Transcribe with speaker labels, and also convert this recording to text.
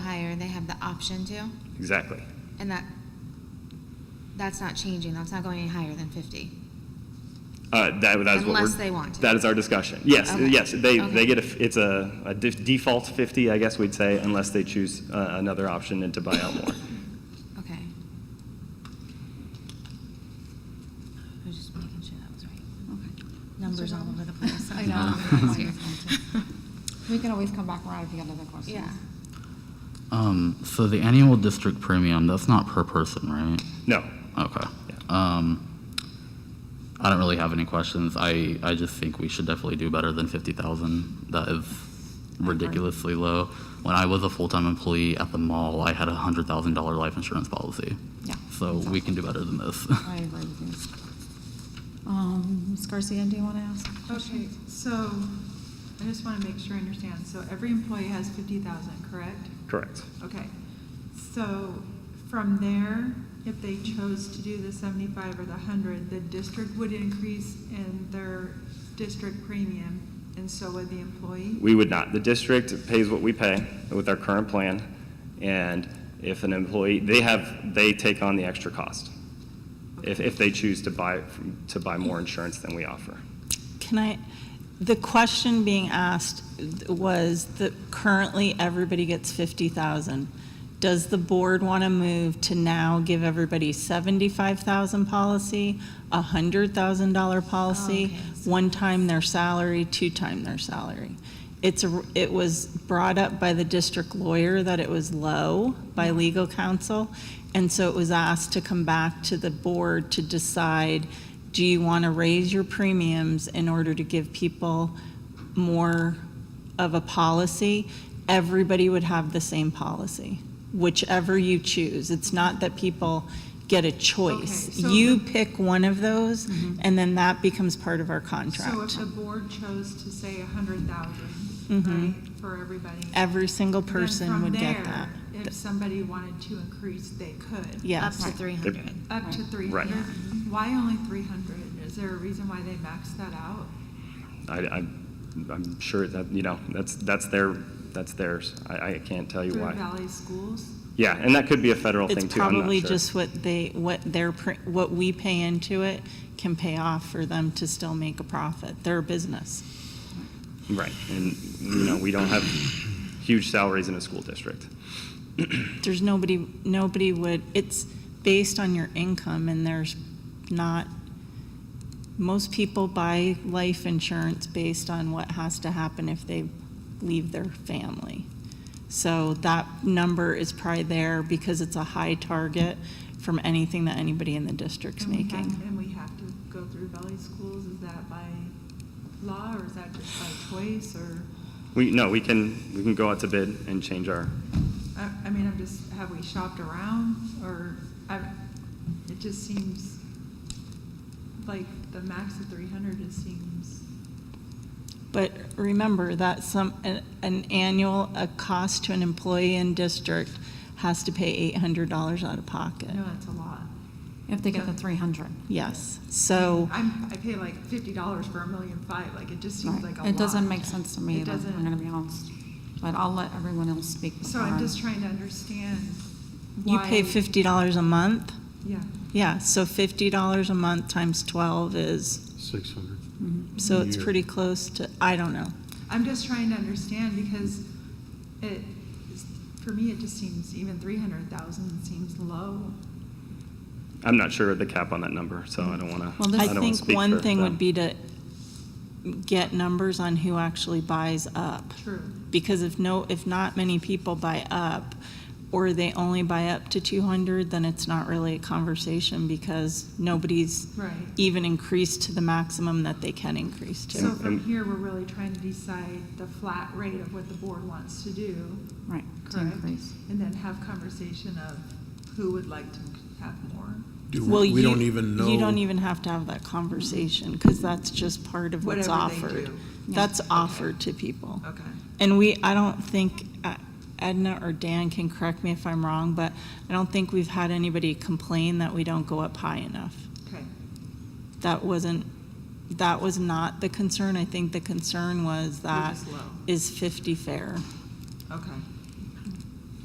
Speaker 1: have the option to,
Speaker 2: Exactly.
Speaker 1: and that, that's not changing, that's not going any higher than fifty.
Speaker 2: Uh, that, that is what
Speaker 1: Unless
Speaker 2: we're-
Speaker 1: they want to.
Speaker 2: That is our discussion. Yes,
Speaker 1: Okay.
Speaker 2: yes, they,
Speaker 1: Okay.
Speaker 2: they get a, f- it's a, a de- default 50, I guess we'd say, unless they choose uh, another option and to buy out more.
Speaker 1: Okay. I was just making sure that was right. Numbers all over the place.
Speaker 3: I know. We can always come back around if you got another question.
Speaker 1: Yeah.
Speaker 4: Um, so the annual district premium, that's not per person, right?
Speaker 2: No,
Speaker 4: Okay.
Speaker 2: Yeah.
Speaker 4: Um, I don't really have any questions. I, I just think we should definitely do better than fifty thousand. That is ridiculously low. When I was a full-time employee at the mall, I had a hundred thousand dollar life insurance policy.
Speaker 3: Yeah.
Speaker 4: So we can do better than this.
Speaker 3: I agree with you. Um, Ms. Garcia, do you want to ask? a
Speaker 5: Okay,
Speaker 3: question?
Speaker 5: so I just want to make sure I understand. So every employee has fifty thousand, correct?
Speaker 2: correct.
Speaker 5: Okay. So from there, if they chose to do the seventy-five or the hundred, the district would increase in their district premium and so would the employee?
Speaker 2: We would not. The district pays what we pay with our current plan, and if an employee, they have, they take on the extra cost if, if they choose to buy, to buy more insurance than we offer.
Speaker 6: Can I, the question being asked was that currently everybody gets 50,000. Does the board want to move to now give everybody 75,000 policy, a $100,000 policy, one time their salary, two time their salary? It's, a- it was brought up by the district lawyer that it was low by legal counsel, and so it was asked to come back to the board to decide do you want to raise your premiums in order to give people more of a policy? Everybody would have the same policy, whichever you choose. It's not that people get a choice.
Speaker 5: Okay, so
Speaker 6: You
Speaker 5: the-
Speaker 6: pick one of those, and then that becomes part of our contract.
Speaker 5: So if the board chose to say a hundred thousand, right, for everybody?
Speaker 6: Mm-hmm. Every single
Speaker 5: then
Speaker 6: person
Speaker 5: from
Speaker 6: would get
Speaker 5: there,
Speaker 6: that.
Speaker 5: If somebody wanted to increase, they could.
Speaker 1: Up
Speaker 6: Yes.
Speaker 1: to three hundred.
Speaker 5: Up to three
Speaker 2: Right.
Speaker 5: hundred? Why only three hundred? Is there a reason why they maxed that out?
Speaker 2: I, I, I'm sure that, you know, that's, that's their, that's theirs. I, I can't tell you
Speaker 5: Through
Speaker 2: why.
Speaker 5: Valley Schools?
Speaker 2: Yeah, and that could be a federal
Speaker 6: It's
Speaker 2: thing too, I'm not
Speaker 6: probably
Speaker 2: sure.
Speaker 6: just what they, what their, pr- what we pay into it can pay off for them to still make a profit. They're a business.
Speaker 2: Right, and, you know, we don't have huge salaries in a school district.
Speaker 6: There's nobody, nobody would, it's based on your income and there's not, most people buy life insurance based on what has to happen if they leave their family. So that number is probably there because it's a high target from anything that anybody in the district's
Speaker 5: And we have-
Speaker 6: making.
Speaker 5: And we have to go through Valley Schools, is that by law, or is that just by choice, or,
Speaker 2: We, no, we can, we can go out to bid and change our,
Speaker 5: I, I mean, I'm just, have we shopped around, or, I, it just seems like the max of three hundred just seems,
Speaker 6: But remember that some, an- an annual, a cost to an employee in district has to pay $800 out of pocket.
Speaker 5: no, that's a lot.
Speaker 3: If they get the three hundred.
Speaker 6: Yes, so,
Speaker 5: I'm, I pay like fifty dollars for a million five, like, it just seems like a lot.
Speaker 3: It doesn't make sense to me,
Speaker 5: It
Speaker 3: either, I'm gonna
Speaker 5: doesn't,
Speaker 3: be honest. But I'll let everyone else speak.
Speaker 5: so
Speaker 3: before I-
Speaker 5: I'm just trying to understand
Speaker 6: you
Speaker 5: why.
Speaker 6: pay $50 a month?
Speaker 5: Yeah.
Speaker 6: Yeah, so $50 a month times 12 is,
Speaker 7: 600.
Speaker 3: Mhm.
Speaker 6: so it's
Speaker 7: Yeah.
Speaker 6: pretty close to, I don't know.
Speaker 5: I'm just trying to understand because it, for me, it just seems even three hundred thousand seems low.
Speaker 2: I'm not sure of the cap on that number, so I don't wanna, I
Speaker 3: Well,
Speaker 2: don't
Speaker 3: this-
Speaker 2: wanna
Speaker 6: I
Speaker 2: speak
Speaker 6: think one
Speaker 2: for
Speaker 6: thing
Speaker 2: them.
Speaker 6: would be to get numbers on who actually buys up.
Speaker 5: True.
Speaker 6: Because if no, if not many people buy up, or they only buy up to two hundred, then it's not really a conversation because nobody's
Speaker 5: Right.
Speaker 6: even increased to the maximum that they can increase to.
Speaker 5: So
Speaker 2: And-
Speaker 5: from
Speaker 2: and-
Speaker 5: here, we're really trying to decide the flat rate of what the board wants to do,
Speaker 3: Right, to
Speaker 5: correct?
Speaker 3: increase.
Speaker 5: And then have conversation of who would like to have more.
Speaker 7: Do
Speaker 6: Well,
Speaker 7: We we
Speaker 6: you-
Speaker 7: don't even know.
Speaker 6: You don't even have to have that conversation, because that's just part of what's
Speaker 5: Whatever they
Speaker 6: offered.
Speaker 5: do.
Speaker 3: Yeah.
Speaker 6: That's offered to people.
Speaker 5: Okay.
Speaker 6: And we, I don't think, uh, Edna or Dan can correct me if I'm wrong, but I don't think we've had anybody complain that we don't go up high enough.
Speaker 5: Okay.
Speaker 6: That wasn't, that was not the concern. I think the concern was that,
Speaker 5: just low.
Speaker 6: is 50 fair?
Speaker 5: Okay.